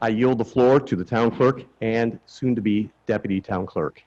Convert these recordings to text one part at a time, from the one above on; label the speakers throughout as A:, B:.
A: I yield the floor to the town clerk and soon-to-be deputy town clerk.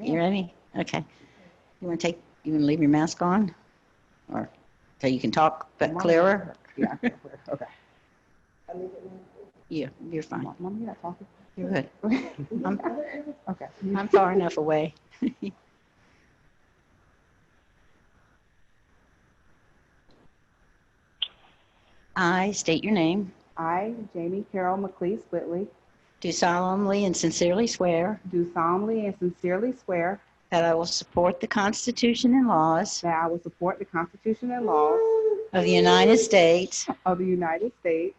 B: You ready? Okay. You want to take, you want to leave your mask on? Or, so you can talk, but clearer?
C: Yeah, okay.
B: Yeah, you're fine.
C: Mom, you're not talking.
B: You're good. I'm,
C: Okay.
B: I'm far enough away. I state your name,
C: I, Jamie Carol McLeese Whitley,
B: do solemnly and sincerely swear
C: do solemnly and sincerely swear
B: that I will support the Constitution and laws
C: that I will support the Constitution and laws
B: of the United States,
C: of the United States,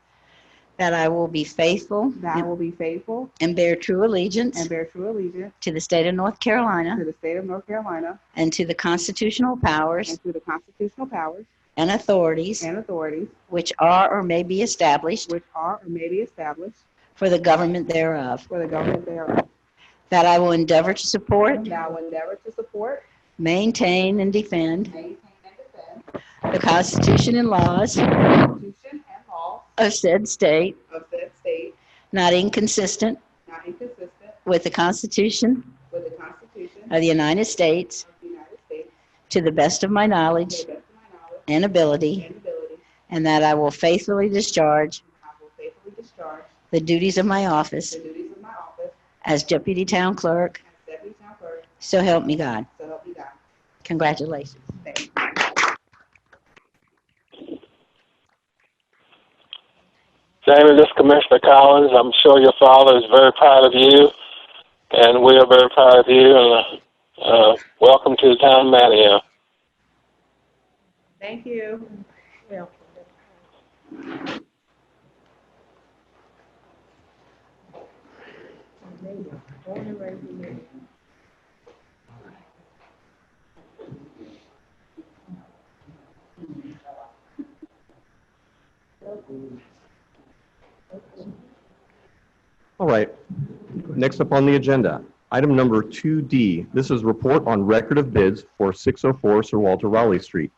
B: that I will be faithful
C: that I will be faithful
B: and bear true allegiance
C: and bear true allegiance
B: to the state of North Carolina
C: to the state of North Carolina
B: And to the constitutional powers
C: and to the constitutional powers
B: and authorities
C: and authorities
B: which are or may be established
C: which are or may be established
B: for the government thereof.
C: for the government thereof,
B: That I will endeavor to support,
C: that I will endeavor to support,
B: maintain, and defend
C: maintain, and defend
B: the Constitution and laws
C: the Constitution and laws
B: of said state,
C: of said state,
B: not inconsistent
C: not inconsistent
B: with the Constitution
C: with the Constitution
B: of the United States,
C: of the United States,
B: to the best of my
C: to
B: knowledge
C: the best of my knowledge
B: and ability,
C: and ability,
B: and that I will faithfully discharge
C: I will faithfully discharge
B: the duties of my office
C: the duties of my office
B: as Deputy Town Clerk.
C: as Deputy Town Clerk,
B: So help me God.
C: so help me God.
B: Congratulations.
C: Thank you.
D: Jamie, this is Commissioner Collins. I'm sure your father is very proud of you, and we are very proud of you. And uh, uh, welcome to the town of Manio.
C: Thank you.
A: All right. Next up on the agenda, item number 2D. This is report on record of bids for 604 Sir Walter Raleigh Street.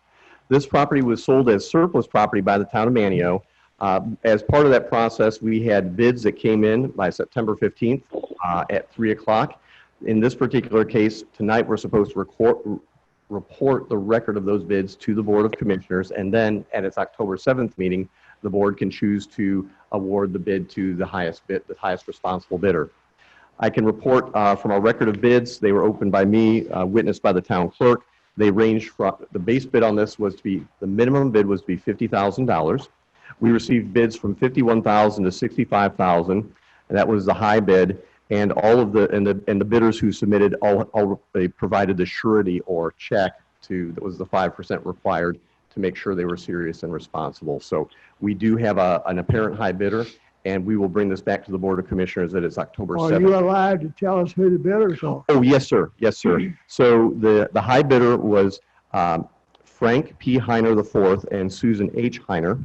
A: This property was sold as surplus property by the town of Manio. Uh, As part of that process, we had bids that came in by September 15th uh, at 3 o'clock. In this particular case, tonight, we're supposed to record, report the record of those bids to the Board of Commissioners, and then at its October 7th meeting, the board can choose to award the bid to the highest bid, the highest responsible bidder. I can report uh, from our record of bids, they were opened by me, uh, witnessed by the town clerk. They ranged from, the base bid on this was to be, the minimum bid was to be $50,000. We received bids from 51,000 to 65,000, and that was the high bid. And all of the, and the, and the bidders who submitted, all, all, they provided the surety or check to, that was the 5% required to make sure they were serious and responsible. So we do have a, an apparent high bidder, and we will bring this back to the Board of Commissioners at its October 7th.
E: Are you allowed to tell us who the bidders are?
A: Oh, yes, sir. Yes, sir. So the, the high bidder was um, Frank P. Heiner IV and Susan H. Heiner.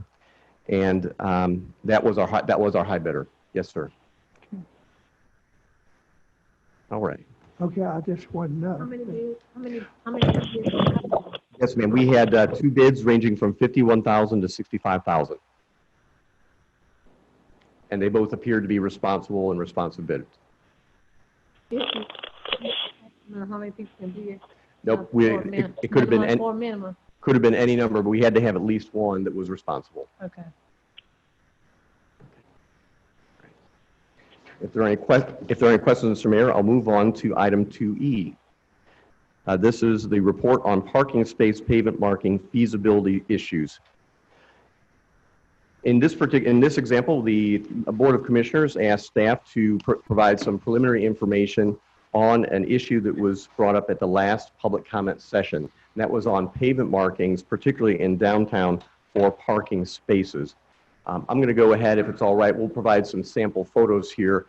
A: And um, that was our, hi- that was our high bidder. Yes, sir. All right.
E: Okay, I just wasn't
F: How
E: know.
F: many do, how many, how many do you have?
A: Yes, ma'am. We had uh, two bids ranging from 51,000 to 65,000. And they both appeared to be responsible and responsive bidders.
F: No, how many people can be?
A: Nope, we,
F: Oh,
A: it it could have been, an-
F: Four minimum,
A: could have been any number, but we had to have at least one that was responsible.
F: okay.
A: If there are any que, if there are any questions, Mr. Mayor, I'll move on to item 2E. Uh, This is the report on parking space pavement marking feasibility issues. In this partic, in this example, the Board of Commissioners asked staff to pr- provide some preliminary information on an issue that was brought up at the last public comment session. And That was on pavement markings, particularly in downtown for parking spaces. Um, I'm going to go ahead, if it's all right, we'll provide some sample photos here